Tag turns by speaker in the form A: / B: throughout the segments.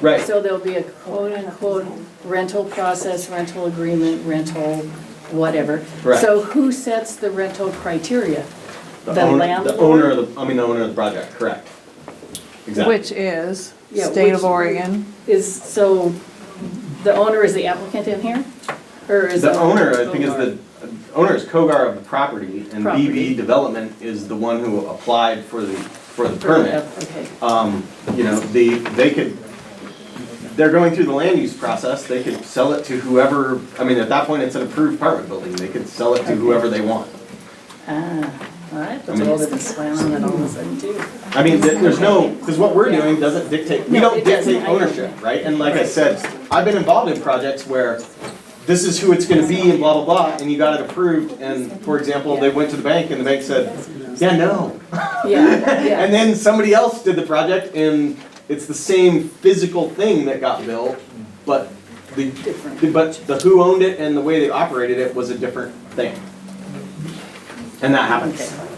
A: Right.
B: So there'll be a quote-unquote rental process, rental agreement, rental whatever.
A: Correct.
B: So who sets the rental criteria? The
A: owner-
B: landlord?
A: The owner of the, I mean, the owner of the project, correct. Exactly.
C: Which is
B: Yeah,
C: state
B: which-
C: of Oregon.
B: Is, so the owner is the applicant in here? Or is?
A: The owner, I think, is the, owner is Kogar of the property, and
B: Property.
A: BB Development is the one who applied for the, for the permit.
B: Oh, Okay,
A: Um, you know, the, they could, they're going through the land use process, they could sell it to whoever, I mean, at that point, it's an approved apartment building, they could sell it to whoever they want.
B: ah, all right, that's
A: I
B: a
A: mean-
B: little bit slam on it all of a sudden too.
A: I mean, th- there's no, because what we're doing doesn't dictate, we
B: No,
A: don't
B: it doesn't.
A: dictate
B: I know
A: ownership,
B: that.
A: right? And like I said, I've been involved in projects where this is who it's gonna be and blah, blah, blah, and you got it approved, and for example, they went to the bank and the bank said, yeah, no.
B: Yeah,
A: And
B: yeah,
A: then somebody else did the project and it's the same physical thing that got built, but the,
B: Different.
A: but the who owned it and the way they operated it was a different thing. And that happens.
B: okay.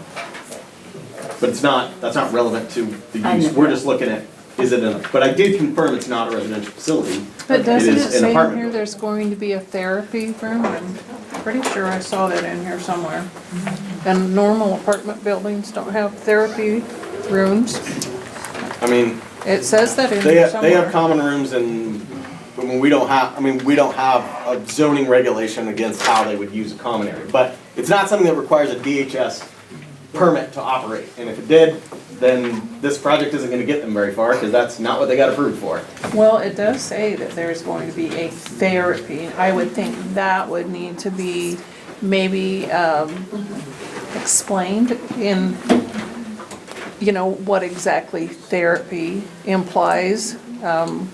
A: But it's not, that's not relevant to the
B: I
A: use,
B: know.
A: we're just looking at, is it an, but I did confirm it's not a residential facility.
C: But doesn't it
A: is an
C: say in
A: apartment
C: here there's going to be a therapy room? I'm pretty sure I saw that in here somewhere. And normal apartment buildings don't have therapy rooms.
A: I mean,
C: It says that in
A: they
C: here
A: have, they have
C: somewhere.
A: common rooms and, I mean, we don't have, I mean, we don't have a zoning regulation against how they would use a common area. But it's not something that requires a DHS permit to operate. And if it did, then this project isn't gonna get them very far, because that's not what they got approved for.
C: Well, it does say that there's going to be a therapy. I would think that would need to be maybe um, explained in, you know, what exactly therapy implies. Um,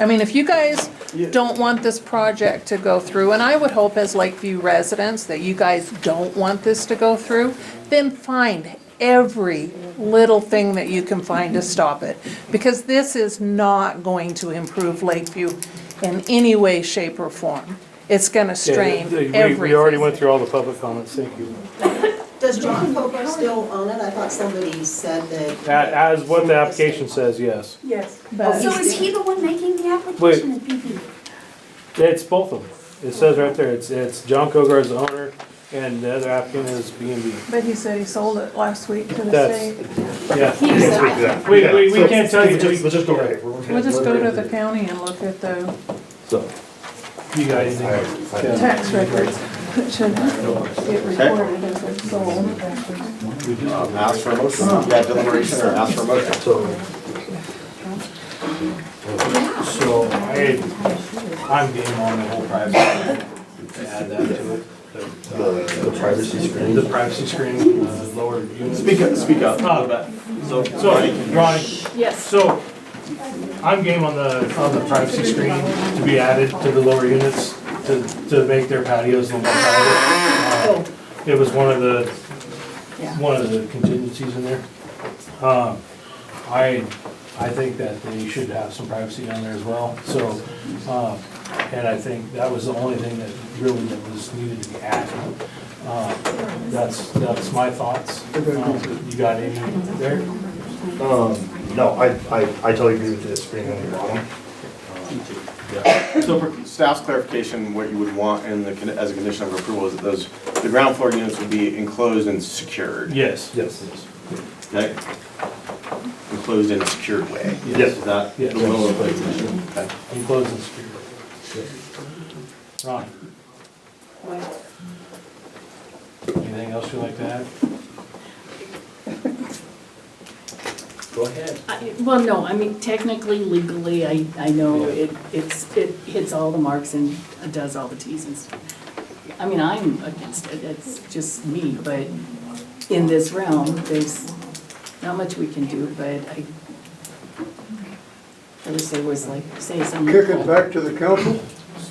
C: I mean, if you guys
A: Yeah.
C: don't want this project to go through, and I would hope as Lakeview residents that you guys don't want this to go through, then find every little thing that you can find to stop it. Because this is not going to improve Lakeview in any way, shape, or form. It's gonna
D: Yeah,
C: strain
D: they- we-
C: everything.
D: We already went through all the public comments, thank you.
E: Does John Poker still own it? I thought somebody said
D: A-
E: that.
D: As what the application says, yes.
F: Yes.
C: But-
G: So is he the one making the
D: Wait.
G: application, is BB?
D: It's both of them. It says right there, it's, it's John Kogar is the owner and the other applicant is B and B.
C: But he said he sold it last week to the
D: That's-
C: state.
D: Yeah.
G: He's,
D: We, we, we can't tell you.
H: We'll just, we'll just go right here.
C: We'll just go to the county and look at the
D: So, You guys, yeah.
C: tax records that should get recorded if it's sold.
A: Ask for a motion, yeah, deliberation or ask for a motion.
D: so, so I, I'm game on the whole private. Add that to it. uh,
H: The privacy screen.
D: The privacy screen, uh, lower unit.
A: Speak up, speak up. a little bit.
D: So, so, Ronnie,
B: Yes,
D: so I'm game on the, on the privacy screen to be added to the lower units to, to make their patios a little more private. Uh, It was one of the, one of the contingencies in there. Um, I, I think that they should have some privacy down there as well, so, um, and I think that was the only thing that really that was needed to be added. Uh, That's, that's my thoughts. Um, You got any there?
H: Um, no, I, I, I totally agree with the screen on the bottom.
A: So for staff's clarification, what you would want in the, con- as a condition of approval is that those, the ground floor units would be enclosed and secured.
D: Yes.
H: Yes, yes.
A: Okay? Enclosed in a secured way.
D: Yes.
A: Is that the
D: Yes.
A: will of the commission? Okay.
D: Enclosed and secured. Ron? Anything else you'd like to add?
H: Go ahead.
B: I- well, no, I mean technically, legally, I, I know it, it's, it hits all the marks and does all the Ts and stuff. I mean, I'm against it, it's just me, but in this realm, there's not much we can do, but I, I wish there was like, say something.
I: Kick it back to the council?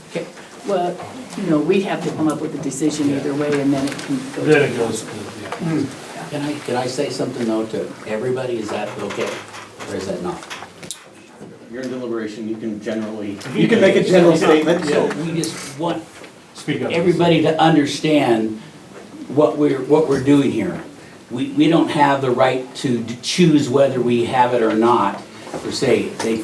B: Okay, Well, you know, we have to come up with a decision either way, and then it can go. to-
D: Then it goes to, yeah.
J: Can I, can I say something though to everybody? Is that okay? Or is that not?
A: You're in deliberation, you can generally, you can make a general statement.
J: So we just want
D: Speak up.
J: everybody to understand what we're, what we're doing here. We, we don't have the right to d- choose whether we have it or not, per se. They,